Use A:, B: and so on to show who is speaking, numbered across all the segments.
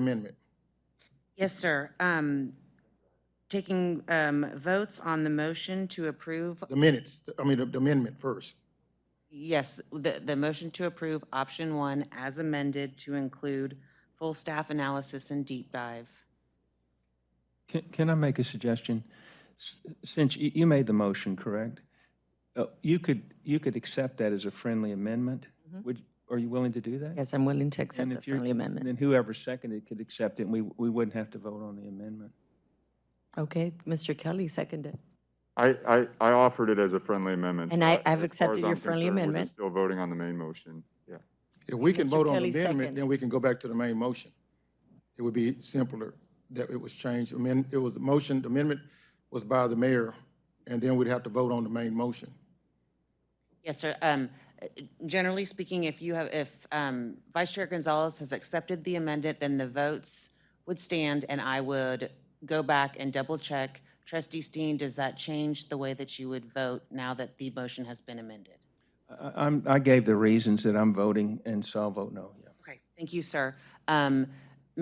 A: amendment.
B: Yes, sir. Um, Taking um, votes on the motion to approve,
A: The minutes, I mean, the amendment first.
B: yes, the, the motion to approve option one as amended to include full staff analysis and deep dive.
C: Can, can I make a suggestion? S- Since you, you made the motion, correct? Uh, You could, you could accept that as a friendly amendment? Would, are you willing to do that?
D: Mm-hmm. Yes, I'm willing to
C: And
D: accept the
C: if you're-
D: friendly amendment.
C: Then whoever seconded could accept it, and we, we wouldn't have to vote on the amendment.
D: Okay, Mr. Kelly seconded.
E: I, I, I offered it as a friendly amendment. so
D: And I-
E: I-
D: I've
E: as far
D: accepted
E: as
D: your
E: I'm
D: friendly
E: concerned, we're
D: amendment.
E: just Still voting on the main motion, yeah.
A: If we can
D: Mr.
A: vote on the
D: Kelly,
A: amendment,
D: second.
A: then we can go back to the main motion. It would be simpler that it was changed, amend, it was the motion, the amendment was by the mayor, and then we'd have to vote on the main motion.
B: Yes, sir. Um, Generally speaking, if you have, if um, Vice Chair Gonzalez has accepted the amendment, then the votes would stand, and I would go back and double-check. Trustee Steen, does that change the way that you would vote now that the motion has been amended?
C: I, I'm, I gave the reasons that I'm voting, and so I'll vote no, yeah.
B: Okay, thank you, sir. Um,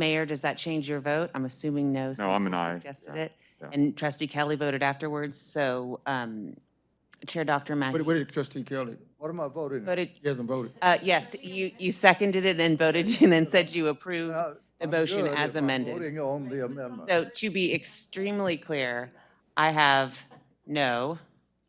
B: Mayor, does that change your vote? I'm assuming no, since
E: I'm
B: you
E: an aye,
B: suggested it. And trustee Kelly voted afterwards, so um, Chair Dr.
A: What,
B: Mackey
A: what did trustee Kelly,
F: What am I voting? on?
B: voted,
A: he hasn't voted.
B: uh, yes, you, you seconded it and voted and then said you approved the
F: I'm
B: motion
F: good
B: as
F: if I'm
B: amended.
F: Voting on the amendment.
B: So to be extremely clear, I have no,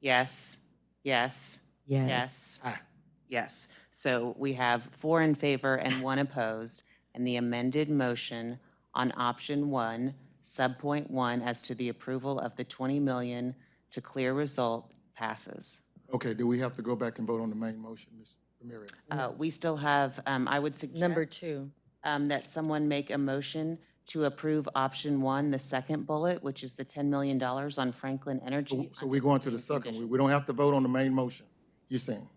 B: yes, yes,
D: Yes.
B: Yes. Ah. Yes. So we have four in favor and one opposed, and the amended motion on option one, subpoint one, as to the approval of the 20 million to clear result passes.
A: Okay, do we have to go back and vote on the main motion, Ms. Ramirez?
B: Uh, We still have, um, I would suggest.
D: Number two.
B: um, That someone make a motion to approve option one, the second bullet, which is the $10 million on Franklin Energy.
A: Oh, So we're going to the second, we, we don't have to vote on the main motion, you're saying?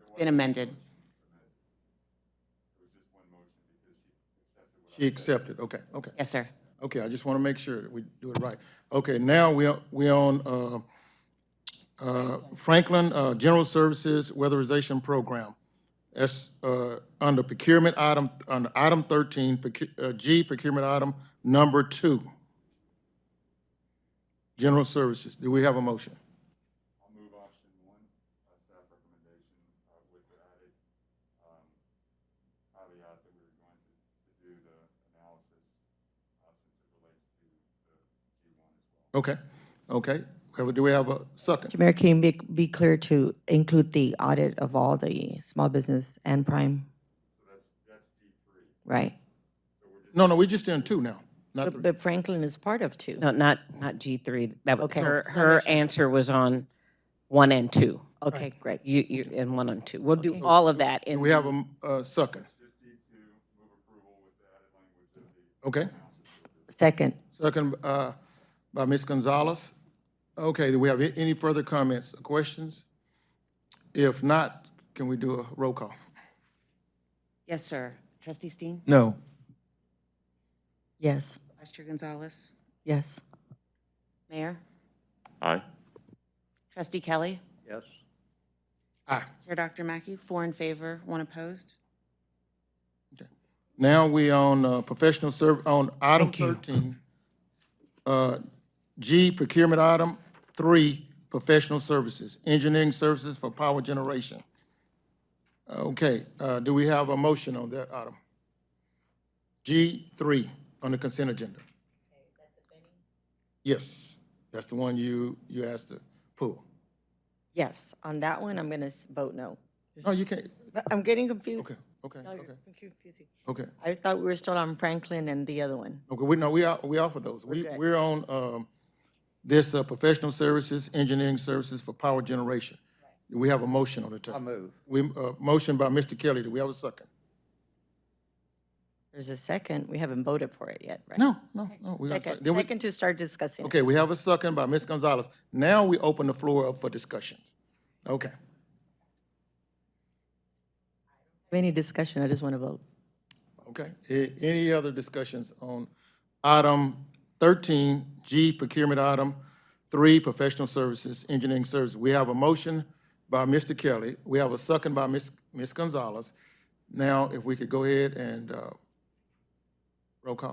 B: It's been amended.
A: She accepted, okay, okay.
B: Yes, sir.
A: Okay, I just want to make sure that we do it right. Okay, now we're, we're on uh, uh, Franklin uh, General Services Weatherization Program. That's uh, under procurement item, under item 13, procu- uh, G procurement item number two. General Services, do we have a motion? Okay, okay. Have- Do we have a second?
D: Mayor, can you be, be clear to include the audit of all the small business and prime? Right.
A: No, no, we just in two now. Not
D: But
A: three.
D: but Franklin is part of two.
G: No, not, not G3. That, was-
D: Okay.
G: her, her answer was on one and two.
D: Okay, great.
G: You, you, and one and two. We'll do all of that in.
A: We have uh, a m- a second. Okay.
D: Second,
A: Second uh, by Ms. Gonzalez. Okay, do we have a- any further comments, or questions? If not, can we do a roll call?
B: Yes, sir. Trustee Steen?
C: No,
D: yes,
B: Vice Chair Gonzalez?
D: yes,
B: Mayor?
E: Aye.
B: Trustee Kelly?
F: Yes.
A: Aye.
B: Chair Dr. Mackey, four in favor, one opposed.
A: Now we on uh, professional serv, on item 13. uh, G, procurement item three, professional services, engineering services for power generation. Okay, uh, do we have a motion on that item? G3 on the consent agenda. Yes, that's the one you, you asked to pull.
D: yes. On that one, I'm going to vote no.
A: No, you can't,
D: But I'm getting confused.
A: okay, okay,
D: No, you're
A: okay,
D: confusing.
A: okay.
D: I just thought we were still on Franklin and the other one.
A: Okay, we, no, we are, we offer those. We,
D: Okay.
A: we're on, um, this, uh, professional services, engineering services for power generation. Do we have a motion on the
F: I
A: table?
F: move.
A: We, uh, motion by Mr. Kelly, do we have a second?
D: There's a second. We haven't voted for it yet, right?
A: No, no, no, we got a
D: Second,
A: second. Then we,
D: second to start discussing. it.
A: okay, we have a second by Ms. Gonzalez. Now we open the floor up for discussions. Okay,
D: Any discussion, I just want to vote.
A: okay. A- any other discussions on item thirteen, G, procurement item three, professional services, engineering services? We have a motion by Mr. Kelly. We have a second by Ms. Ms. Gonzalez. Now, if we could go ahead and, uh, Roll call.